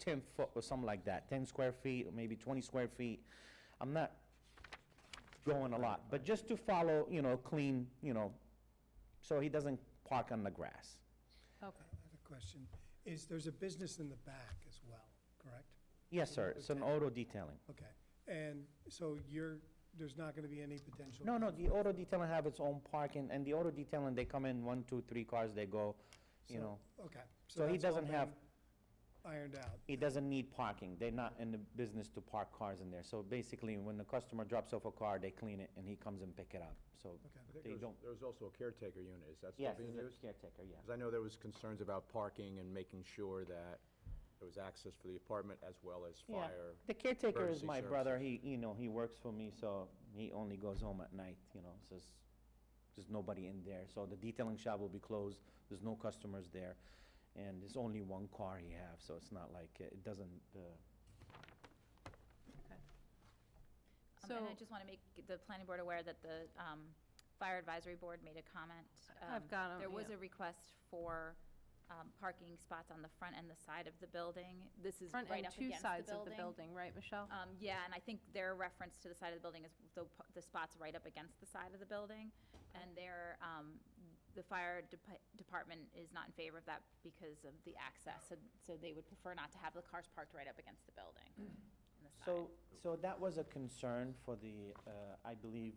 10 foot or something like that, 10 square feet, or maybe 20 square feet. I'm not going a lot, but just to follow, you know, clean, you know, so he doesn't park on the grass. Okay. Um, I have a question. Is, there's a business in the back as well, correct? Yes, sir, it's an auto detailing. Okay. And so you're, there's not going to be any potential? No, no, the auto detailing have its own parking, and the auto detailing, they come in, one, two, three cars, they go, you So- know. Okay. So he that's all doesn't have- been Ironed out. It doesn't need parking. They're not in the business to park cars in there. So basically, when the customer drops off a car, they clean it and he comes and pick it up. So Okay. I think they there's- don't. There's also a caretaker unit, is that still Yes, being it's a used? caretaker, yeah. Because I know there was concerns about parking and making sure that there was access for the apartment as well as Yeah. fire. The caretaker is emergency my brother. He, you know, he works for me, so he only goes home at night, you know, so there's, there's nobody in there. So the detailing shop will be closed. There's no customers there. And it's only one car he have, so it's not like, it doesn't, uh, Um, And I So- just want to make the planning board aware that the um, fire advisory board made a comment. I've Um, got 'em, There was yeah. a request for um, parking spots on the front and the side of the building. This is Front right up and against the building. two sides of the building, right, Michelle? Um, Yeah, and I think their reference to the side of the building is the p- the spots right up against the side of the building. And their, um, the fire depa- department is not in favor of that because of the access. So- So they would prefer not to have the cars parked right up against the building on the side. So, so that was a concern for the, uh, I believe,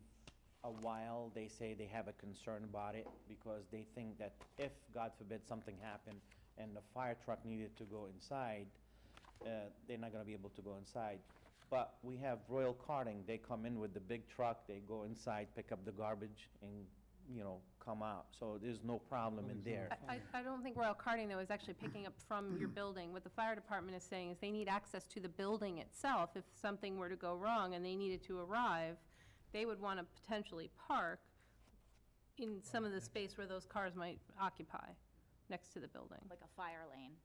a while, they say they have a concern about it, because they think that if, God forbid, something happened and the fire truck needed to go inside, uh, they're not gonna be able to go inside. But we have Royal Carting, they come in with the big truck, they go inside, pick up the garbage, and, you know, come out, so there's no problem in there. I, I don't think Royal Karting, though, is actually picking up from your building. What the fire department is saying is they need access to the building itself. If something were to go wrong and they needed to arrive, they would want to potentially park in some of the space where those cars might occupy, next to the building. like a fire lane,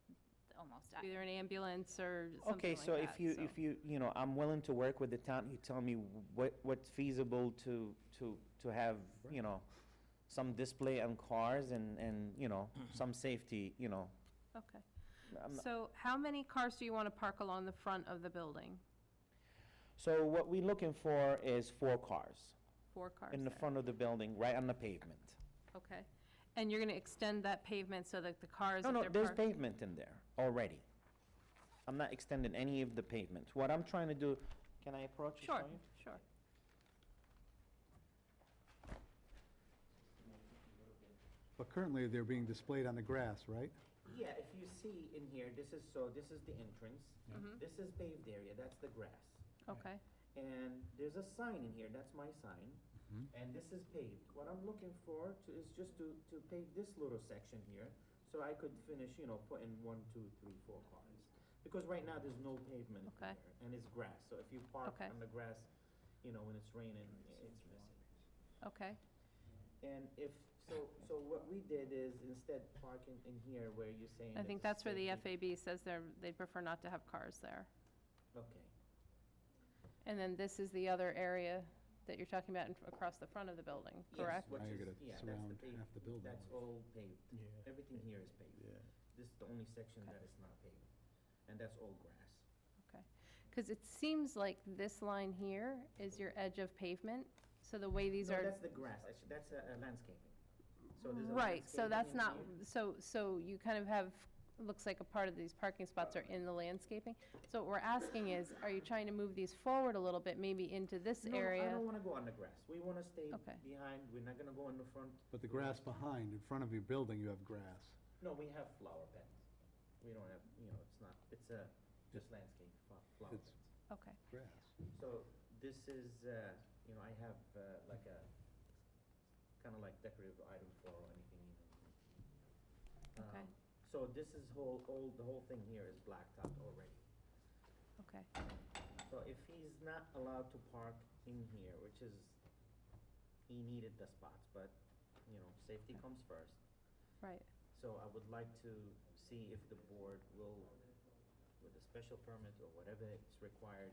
almost. I- Either an ambulance or something like Okay, that. so if you, if you, you know, I'm willing to work with the town, you tell me what, what's feasible to, to, to have, you know, some display on cars and, and, you know, Mm-hmm. some safety, you know. Um, Okay. I'm not- So how many cars do you want to park along the front of the building? So what we're looking for is four cars Four cars in the there. front of the building, right on the pavement. Okay. And you're going to extend that pavement so that the cars No, that no, they're there's parked? pavement in there already. I'm not extending any of the pavement. What I'm trying to do, can I approach? and show Sure, you? sure. But currently, they're being displayed on the grass, right? Yeah, if you see in here, this is, so this is the entrance. Mm-hmm. This is paved area, that's the grass. Okay. And there's a sign in here, that's my sign. And this is paved. What I'm looking for to, is just to, to pave this little section here, so I could finish, you know, putting one, two, three, four cars. Because right now, there's no pavement in Okay. there, and it's grass, so if you park Okay. on the grass, you know, when it's raining, it's messy. Okay, And if, so, so what we did is instead parking in here where you're saying. that I think it's that's where the safety- FAB says they're, they prefer not to have cars there. Okay. And then this is the other area that you're talking about in- across the front of the building, Yes, correct? which Now you're is- gonna yeah, that's the surround paved- half the building. That's all paved. Yeah. Everything here is paved. This is the only section that is not paved, and that's all grass. Okay. Because it seems like this line here is your edge of pavement, so the way these No, are. that's the grass, actually, that's uh, uh, landscaping. So there's a Right, so landscaping that's in not, here. so, so you kind of have, looks like a part of these parking spots Uh, are in the landscaping. So what we're asking is, are you trying to move these forward a little bit, maybe into this No, I don't area? wanna go on the grass. We wanna stay Okay. behind, we're not gonna go in the front. But the grass behind, in front of your building, you have grass. No, we have flower beds. We don't have, you know, it's not, it's a, just landscape, flo- flower It's- beds. Okay, Grass. So this is, uh, you know, I have uh, like a, kind of like decorative item for or anything, you know. Okay. Um, So this is whole, all, the whole thing here is blacked out already. okay. So if he's not allowed to park in here, which is, he needed the spots, but, you know, safety comes first. Right, So I would like to see if the board will, with a special permit or whatever it's required,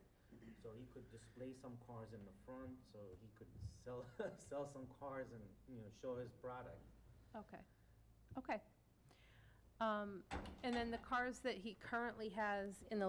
so he could display some cars in the front, so he could sell, sell some cars and, you know, show his product. okay, okay. Um, And then the cars that he currently has in the